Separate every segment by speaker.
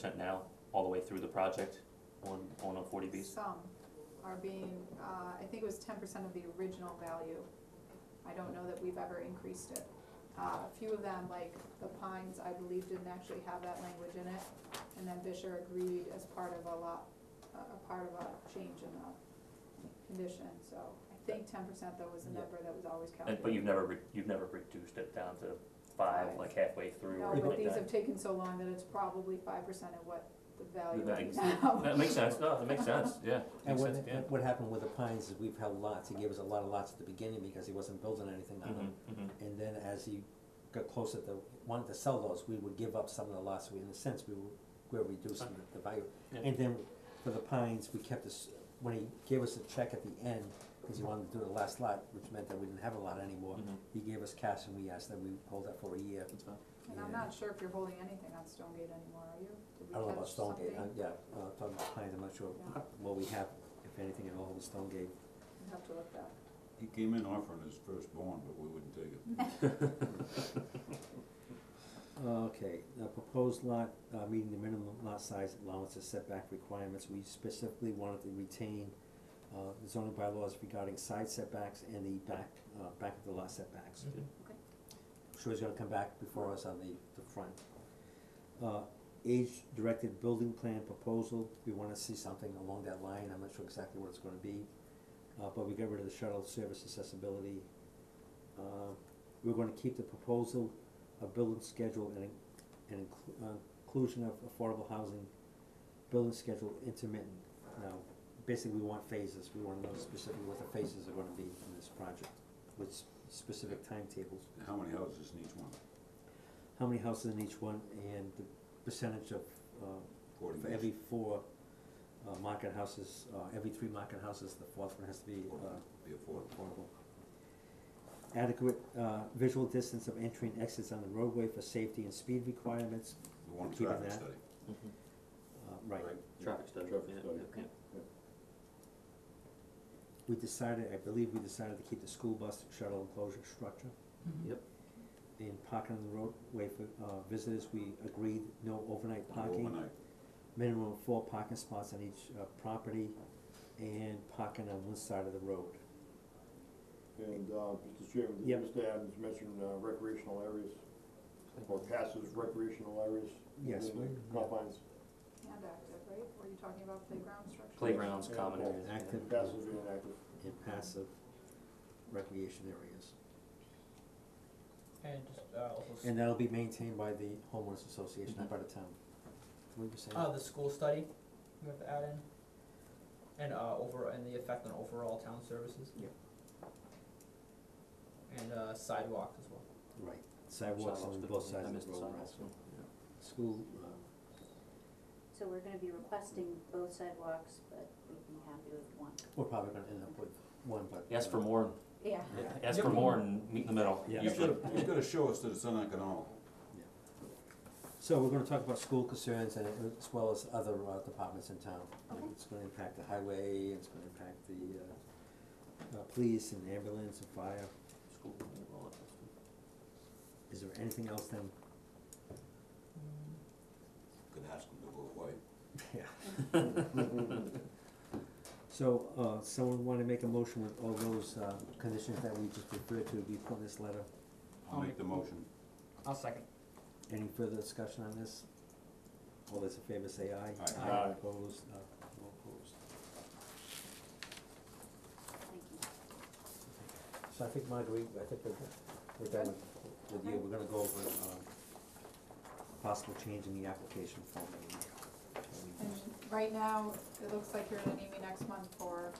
Speaker 1: percent now, all the way through the project on, on a forty Bs?
Speaker 2: Some are being, uh, I think it was ten percent of the original value. I don't know that we've ever increased it. Uh, a few of them, like the Pines, I believe didn't actually have that language in it. And then Fisher agreed as part of a lot, a, a part of a change in the condition, so I think ten percent though was the
Speaker 1: Yeah.
Speaker 2: number that was always
Speaker 1: And,
Speaker 2: calculated.
Speaker 1: but you've never, re- you've never reduced it down to five,
Speaker 2: Five.
Speaker 1: like halfway through or
Speaker 2: No,
Speaker 1: anything
Speaker 2: but
Speaker 1: like
Speaker 2: these
Speaker 1: that?
Speaker 2: have taken so long that it's probably five percent of what the value
Speaker 1: The
Speaker 2: is
Speaker 1: value.
Speaker 2: now.
Speaker 1: That makes sense, no, that makes sense, yeah,
Speaker 3: And
Speaker 1: makes
Speaker 3: what,
Speaker 1: sense, yeah.
Speaker 3: what happened with the pines is we've held lots, he gave us a lot of lots at the beginning because he wasn't building anything on
Speaker 1: Mhm,
Speaker 3: them.
Speaker 1: mhm.
Speaker 3: And then as he got closer to, wanted to sell those, we would give up some of the lots, we, in a sense, we were, we're reducing
Speaker 1: Okay.
Speaker 3: the value.
Speaker 1: Yeah.
Speaker 3: And then for the pines, we kept this, when he gave us a check at the end, cause he wanted to do the last lot, which meant that we didn't have a lot anymore.
Speaker 1: Mhm.
Speaker 3: He gave us cash and we asked that we hold that for a year,
Speaker 1: That's fine.
Speaker 2: And I'm not sure if you're holding anything on Stonegate anymore, are you? Did we
Speaker 3: I don't know about
Speaker 2: catch
Speaker 3: Stonegate,
Speaker 2: something?
Speaker 3: I, yeah, uh, talking about pines, I'm not sure
Speaker 2: Yeah.
Speaker 3: what we have, if anything at all, with Stonegate.
Speaker 2: I'd have to look that.
Speaker 4: He came in offering his firstborn, but we wouldn't take it.
Speaker 3: Oh, Okay, the proposed lot, uh, meeting the minimum lot size allowances setback requirements, we specifically wanted to retain, uh, the zoning bylaws regarding side setbacks and the back, uh, back of the lot setbacks.
Speaker 1: Okay.
Speaker 2: Okay.
Speaker 3: I'm Sure he's gonna come back before us on the, the front. Uh, age-directed building plan proposal, we wanna see something along that line, I'm not sure exactly what it's gonna be. Uh, but we got rid of the shuttle service accessibility. Uh, we're gonna keep the proposal of building schedule and, in- and inclu- uh, inclusion of affordable housing, building schedule intermittent. Now, basically, we want phases, we wanna know specifically what the phases are gonna be in this project, with s- specific timetables.
Speaker 4: How many houses in each one?
Speaker 3: How many houses in each one and the percentage of, uh,
Speaker 4: Forty
Speaker 3: for
Speaker 4: years.
Speaker 3: every four, uh, market houses, uh, every three market houses, the fourth one has to be,
Speaker 4: Forty,
Speaker 3: uh,
Speaker 4: Be a forty.
Speaker 3: Affordable. Adequate, uh, visual distance of entry and exits on the roadway for safety and speed requirements,
Speaker 4: We want a
Speaker 3: Keeping
Speaker 4: traffic
Speaker 3: that,
Speaker 4: study,
Speaker 1: Mhm.
Speaker 3: uh, right.
Speaker 1: Traffic study,
Speaker 4: Traffic
Speaker 1: yeah,
Speaker 4: study.
Speaker 1: yeah, yeah.
Speaker 3: We decided, I believe we decided to keep the school bus shuttle enclosure structure.
Speaker 1: Yep.
Speaker 3: In parking on the roadway for, uh, visitors, we agreed no overnight
Speaker 4: No
Speaker 3: parking.
Speaker 4: Overnight,
Speaker 3: Minimum of four parking spots on each, uh, property and parking on one side of the road.
Speaker 5: And, uh, Mr. Chairman,
Speaker 3: Yep.
Speaker 5: Mr. Adams mentioned uh, recreational areas, or passive recreational areas.
Speaker 3: Yes,
Speaker 5: within
Speaker 3: we-
Speaker 5: the Confines,
Speaker 2: And active, right? Were you talking about playground structure?
Speaker 1: Playgrounds,
Speaker 5: Yeah.
Speaker 1: common areas. yeah.
Speaker 3: Active.
Speaker 5: passive and active.
Speaker 3: and passive recreation areas.
Speaker 6: And just, uh, also, s-
Speaker 3: And that'll be maintained by the homeowners association, not by the town. What were you saying?
Speaker 6: uh, the school study, we have to add in, and, uh, over, and the effect on overall town services.
Speaker 3: Yep.
Speaker 6: And, uh, sidewalks as well.
Speaker 3: Right, sidewalks on
Speaker 1: Sidewalks,
Speaker 3: both
Speaker 1: I
Speaker 3: sides of
Speaker 1: missed
Speaker 3: the
Speaker 1: the
Speaker 3: road, right?
Speaker 1: sidewalks, yeah.
Speaker 3: School, uh,
Speaker 7: So we're gonna be requesting both sidewalks, but we'd be happy with one.
Speaker 3: we're probably gonna end up with one, but.
Speaker 1: Ask for
Speaker 3: uh,
Speaker 1: more,
Speaker 7: Yeah.
Speaker 3: Yeah,
Speaker 1: ask for more and meet in the middle,
Speaker 3: Yeah.
Speaker 4: he's
Speaker 1: usually.
Speaker 4: gotta, he's gotta show us that it's uneconomical.
Speaker 3: so we're gonna talk about school concerns and as well as other uh, departments in town.
Speaker 7: Okay.
Speaker 3: It's gonna impact the highway, it's gonna impact the, uh, uh, police and ambulance and fire.
Speaker 1: School, all of that.
Speaker 3: Is there anything else then?
Speaker 4: Could ask him to go away.
Speaker 3: Yeah. So, uh, someone wanna make a motion with all those, uh, conditions that we just referred to, be put in this letter?
Speaker 4: I'll make the motion.
Speaker 6: I'll second.
Speaker 3: Any further discussion on this? All those in favor say aye.
Speaker 4: Aye.
Speaker 5: Aye.
Speaker 3: Opposed, uh, no opposed.
Speaker 7: Thank you.
Speaker 3: So I think Marguerite, I think we're, we're done with- with you, we're gonna go over, um, possible change in the application form that we- that we
Speaker 2: And
Speaker 3: used.
Speaker 2: right now, it looks like you're gonna need me next month for.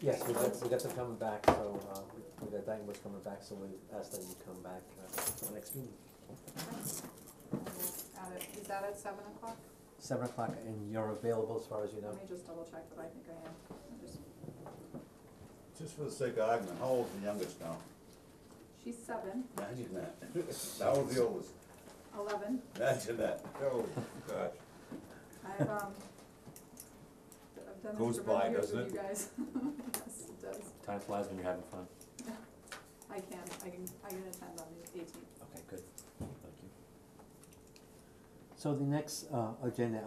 Speaker 3: Yes, we got, we got them coming back, so, uh, we got Dyton coming back, so we asked them to come back, uh, for the next meeting.
Speaker 2: At it, is that at seven o'clock?
Speaker 3: Seven o'clock, and you're available as far as you know?
Speaker 2: Let me just double check, but I think I am. I'm just-
Speaker 4: Just for the sake of argument, how old's the youngest now?
Speaker 2: She's seven,
Speaker 4: Imagine that. How old's the oldest?
Speaker 2: eleven.
Speaker 4: Imagine that. Oh, gosh.
Speaker 2: I've, um, I've done
Speaker 4: Goes
Speaker 2: this for
Speaker 4: by,
Speaker 2: many years
Speaker 4: doesn't
Speaker 2: with
Speaker 4: it?
Speaker 2: you guys. Yes, it does.
Speaker 1: Time flies when you're having fun.
Speaker 2: I can, I can, I can attend on the eighteenth.
Speaker 3: Okay, good. Thank you. So the next, uh, agenda